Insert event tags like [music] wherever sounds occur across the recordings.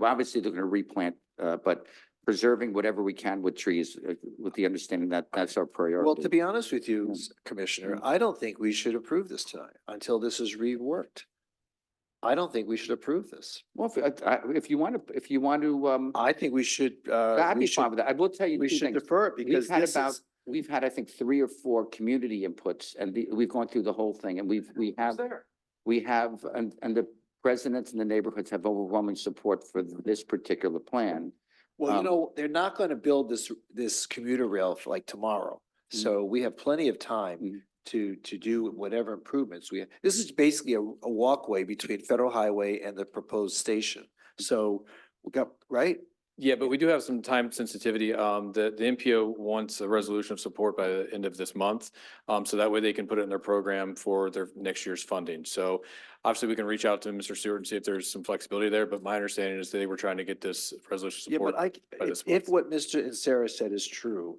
well, obviously they're gonna replant, uh, but preserving whatever we can with trees, uh, with the understanding that that's our priority. Well, to be honest with you, Yeah. s- Commissioner, Mm-hmm. I don't think we should approve this tonight until this is reworked. I don't think we should approve this. Well, if, uh, I, I- if you want to, if you want to, um, I think we should, uh, I'd we be fine with should, that. I will tell you we two should things. defer it We've because had this about, is. we've had, I think, three or four community inputs and the, we've gone through the whole thing and we've, we have, there. we have, and, and the residents and the neighborhoods have overwhelming support for this particular plan. Well, you um, know, they're not going to build this, this commuter rail for like tomorrow. Mhm. So we have plenty of time Mhm. to, to do whatever improvements we have. This is basically a, a walkway between Federal Highway and the proposed station. So we got, right? Yeah, but we do have some time sensitivity. Um, the, the MPO wants a resolution of support by the end of this month. Um, so that way they can put it in their program for their next year's funding. So obviously we can reach out to Mr. Stewart and see if there's some flexibility there, but my understanding is they were trying to get this resolution Yeah, support. but I, c- by if, this if what month. Mr. and Sarah said is true,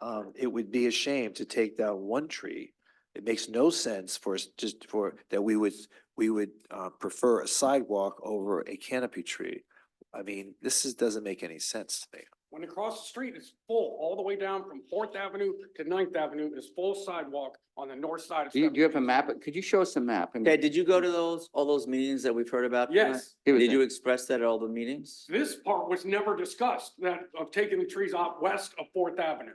um, it would be a shame to take down one tree. It makes no sense for us just for, that we would, we would, uh, prefer a sidewalk over a canopy tree. I mean, this is, doesn't make any sense to me. When across the street is full, all the way down from Fourth Avenue to Ninth Avenue is full sidewalk on the north side of. Do you, do you have a 17th. map? Could you show us a map? I mean, Ted, did you go to those, all those meetings that we've heard about? tonight? Yes, he was Did in. you express that at all the meetings? this part was never discussed, that of taking the trees out west of Fourth Avenue.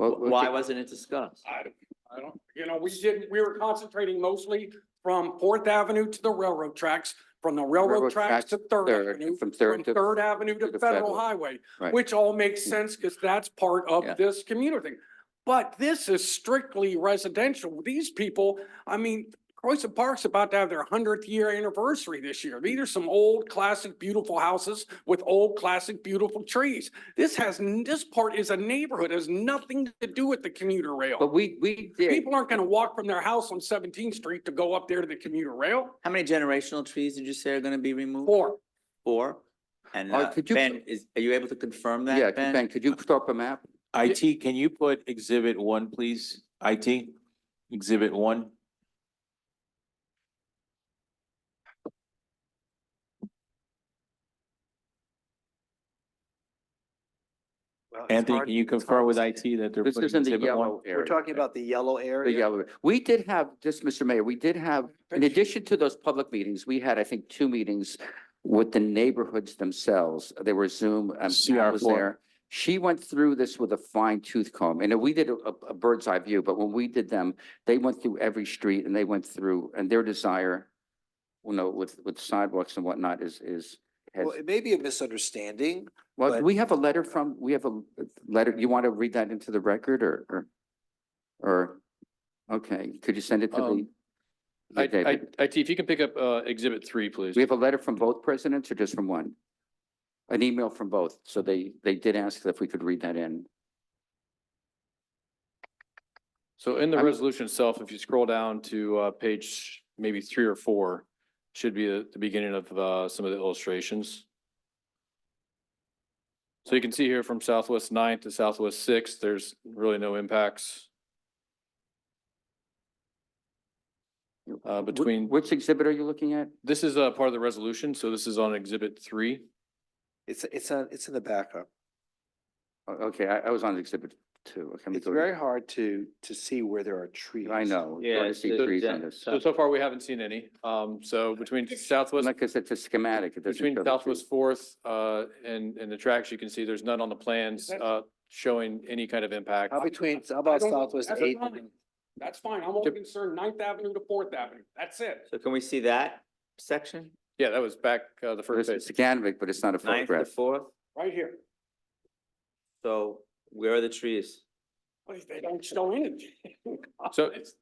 Well, well, Why okay. wasn't it discussed? I don't, I don't, you know, we didn't, we were concentrating mostly from Fourth Avenue to the railroad tracks, from the Railroad railroad tracks to Third Third, Avenue, from Third from to- Third Avenue to the to Federal Federal. Highway, Right. which all makes sense because that's part Yeah. of this community thing. But this is strictly residential. These people, I mean, Croissant Park's about to have their hundredth year anniversary this year. These are some old, classic, beautiful houses with old, classic, beautiful trees. This has, n- this part is a neighborhood, has nothing to do with the commuter rail. But we, we did, People aren't gonna walk from their house on Seventeenth Street to go up there to the commuter rail How many generational trees did you say are gonna be removed? or Four? And Uh, uh, could you- Ben, is, are you able to confirm yeah, that, Ben, Ben? could you throw up a map? IT, can you put exhibit one, please? IT, exhibit one. Anthony, can you confirm with IT that they're This putting is in the exhibit yellow one? area. We're talking about the yellow The area. yellow. We did have, just Mr. Mayor, we did have, in addition to those public meetings, we had, I think, two meetings with the neighborhoods themselves. They were Zoom, um, Pat was CR4. there. She went through this with a fine tooth comb, and we did a, a bird's eye view, but when we did them, they went through every street and they went through, and their desire, you know, with, with sidewalks and whatnot is, is, has, Well, it may be a misunderstanding. well, but- we have a letter from, we have a letter, you want to read that into the record or, or? Or, okay, could you send it to the? Um, I, Yeah, David. I, IT, if you can pick up, uh, exhibit three, please. We have a letter from both presidents or just from one? An email from both. So they, they did ask if we could read that in. So in the I'm- resolution itself, if you scroll down to uh, page maybe three or four, should be the the beginning of uh, some of the illustrations. So you can see here from Southwest Ninth to Southwest Sixth, there's really no impacts. Uh, Wh- between, Which exhibit are you looking at? this is a part of the resolution, so this is on exhibit three. It's, it's, on- it's in the backup. O- Okay, I, I was on exhibit two. Okay, let me It's go to- very hard to, to see where there are trees. I know. it's hard to Yeah, see it's a- trees on this. So, so far, we haven't seen any. Um, so between Southwest Like I said, it's a schematic. It doesn't Between show the trees. Southwest Fourth, uh, and, and the tracks, you can see there's none on the plans, That's- uh, showing any kind of impact. How between, how about I don't- Southwest that's Eighth? fine. That's fine. I'm only concerned Ninth Avenue to Fourth Avenue. That's it. So can we see that section? Yeah, that was back, uh, the This first page. is schematic, but it's not a Ninth to photograph. fourth? Right here. So where are the trees? But They don't show anything. [laughs] So it's,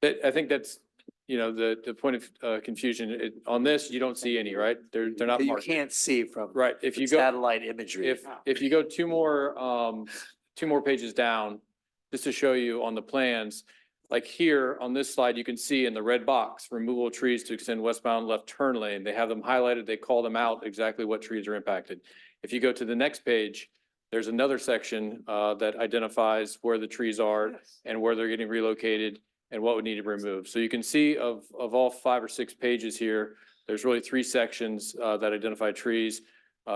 that, I think that's, you know, the, the point of, uh, confusion, it, on this, you don't see any, right? They're, they're not That you marked. can't see from Right, if you go, satellite imagery. if, if you go two more, um, two more pages down, just to show you on the plans, like here on this slide, you can see in the red box, removal of trees to extend westbound left turn lane. They have them highlighted. They call them out exactly what trees are impacted. If you go to the next page, there's another section, uh, that identifies where the trees are and where they're getting relocated and what would need to be removed. So you can see of, of all five or six pages here, there's really three sections, uh, that identify trees.